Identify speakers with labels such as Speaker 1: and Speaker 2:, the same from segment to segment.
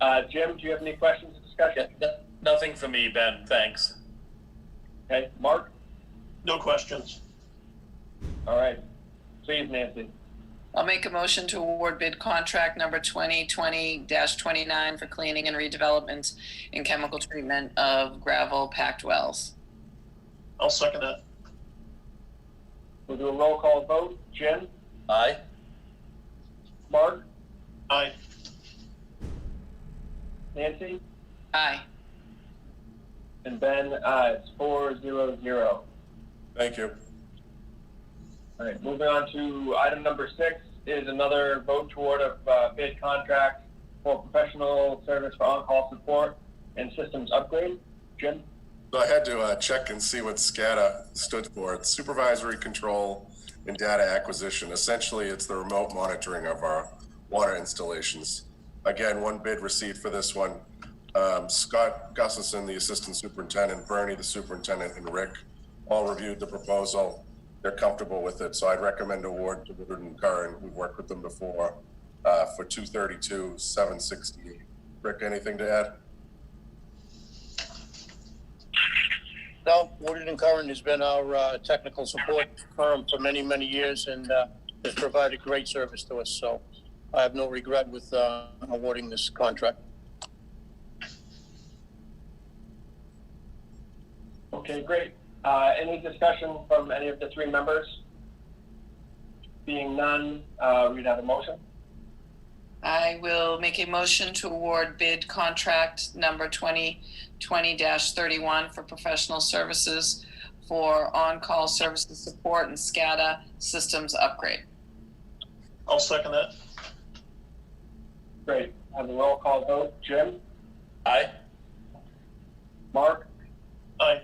Speaker 1: Uh, Jim, do you have any questions or
Speaker 2: Yeah,
Speaker 1: discussion?
Speaker 2: no- Nothing for me, Ben, thanks.
Speaker 1: Okay, Mark?
Speaker 3: No questions.
Speaker 1: All right. Please, Nancy.
Speaker 4: I'll make a motion to award bid contract number 2020-29 for cleaning and redevelopment and chemical treatment of gravel packed wells.
Speaker 3: I'll second that.
Speaker 1: We'll do a roll call vote. Jim?
Speaker 2: Aye?
Speaker 1: Mark?
Speaker 3: Aye.
Speaker 1: Nancy?
Speaker 4: Aye.
Speaker 1: And Ben, uh, it's four zero zero.
Speaker 5: Thank you.
Speaker 1: All right, moving on to item number six is another vote toward a uh, bid contract for professional service for on-call support and systems upgrade. Jim?
Speaker 5: So I had to uh, check and see what SCADA stood for. It's Supervisory Control and Data Acquisition. Essentially, it's the remote monitoring of our water installations. Again, one bid received for this one. Um, Scott Gustafson, the Assistant Superintendent, Bernie, the Superintendent, and Rick all reviewed the proposal. They're comfortable with it, so I'd recommend award to Woodard and Curran. We've worked with them before uh, for 232, 768. Rick, anything to add?
Speaker 6: No, Woodard and Curran has been our uh, technical support firm for many, many years and uh, has provided great service to us. So I have no regret with uh, awarding this contract.
Speaker 1: Okay, great. Uh, any discussion from any of the three members? Being none, uh, we'd have a motion.
Speaker 4: I will make a motion to award bid contract number 2020-31 for professional services for on-call services support and SCADA systems upgrade.
Speaker 3: I'll second that.
Speaker 1: Great. Have a roll call vote. Jim?
Speaker 2: Aye?
Speaker 1: Mark?
Speaker 3: Aye.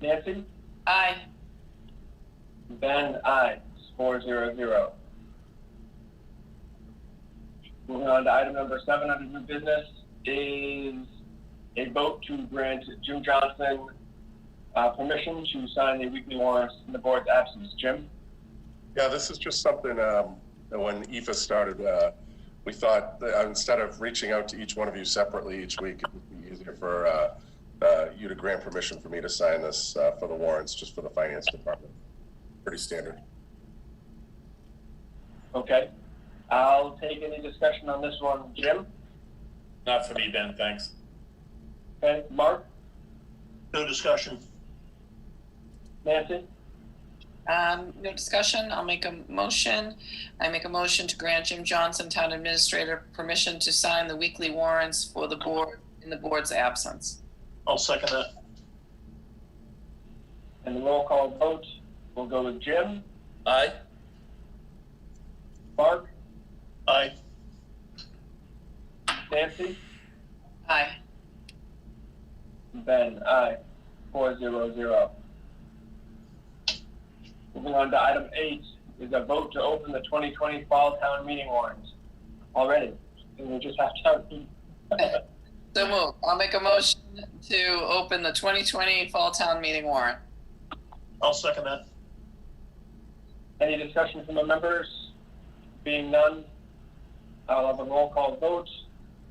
Speaker 1: Nancy?
Speaker 4: Aye.
Speaker 1: Ben, aye. It's Four zero zero. Moving on to item number seven under new business is a vote to grant Jim Johnson uh, permission to sign the weekly warrants in the board's absence. Jim?
Speaker 5: Yeah, this is just something um, that when EFA started, uh, we thought that uh, instead of reaching out to each one of you separately each week, it would be easier for uh, uh, you to grant permission for me to sign this uh, for the warrants, just for the finance department. Pretty standard.
Speaker 1: Okay. I'll take any discussion on this one. Jim?
Speaker 2: Not for me, Ben, thanks.
Speaker 1: Okay. Mark?
Speaker 3: No discussion.
Speaker 1: Nancy?
Speaker 4: Um, no discussion, I'll make a motion. I make a motion to grant Jim Johnson, Town Administrator, permission to sign the weekly warrants for the board, in the board's absence.
Speaker 3: I'll second that.
Speaker 1: And the roll call vote will go with Jim,
Speaker 2: Aye?
Speaker 1: Mark,
Speaker 3: Aye.
Speaker 1: Nancy,
Speaker 4: Aye.
Speaker 1: Ben, aye. Four zero zero. Moving on to item eight is a vote to open the twenty twenty fall town meeting warrants. Already, and we just have to.
Speaker 4: So move, I'll make a motion to open the twenty twenty Fall Town Meeting warrant.
Speaker 3: I'll second that.
Speaker 1: Any discussion from the members? Being none, I'll have a roll call vote.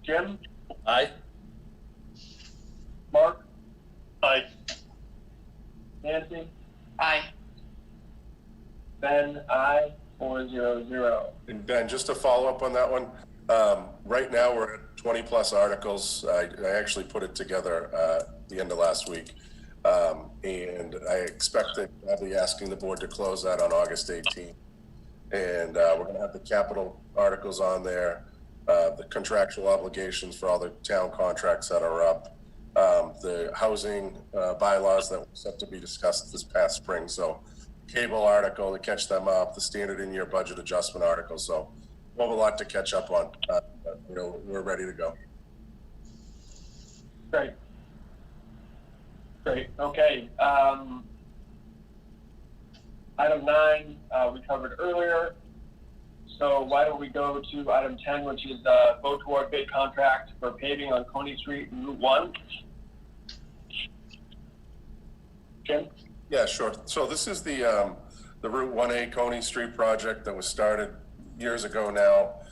Speaker 1: Jim,
Speaker 2: Aye?
Speaker 1: Mark,
Speaker 3: Aye.
Speaker 1: Nancy,
Speaker 4: Aye.
Speaker 1: Ben, aye. Four zero zero.
Speaker 5: And Ben, just to follow up on that one, um, right now, we're at twenty-plus articles. I, I actually put it together, uh, the end of last week. Um, and I expect that I'll be asking the board to close that on August eighteenth. And, uh, we're gonna have the capital articles on there, uh, the contractual obligations for all the town contracts that are up, um, the housing, uh, bylaws that were set to be discussed this past spring, so cable article to catch them up, the standard in your budget adjustment article. So we'll have a lot to catch up on. Uh, but, you know, we're ready to go.
Speaker 1: Great. Great, okay. Um, item nine, uh, we covered earlier. So why don't we go to item ten, which is, uh, vote toward bid contract for paving on Coney Street and Route One? Jim?
Speaker 5: Yeah, sure. So this is the, um, the Route 1A Coney Street project that was started years ago now.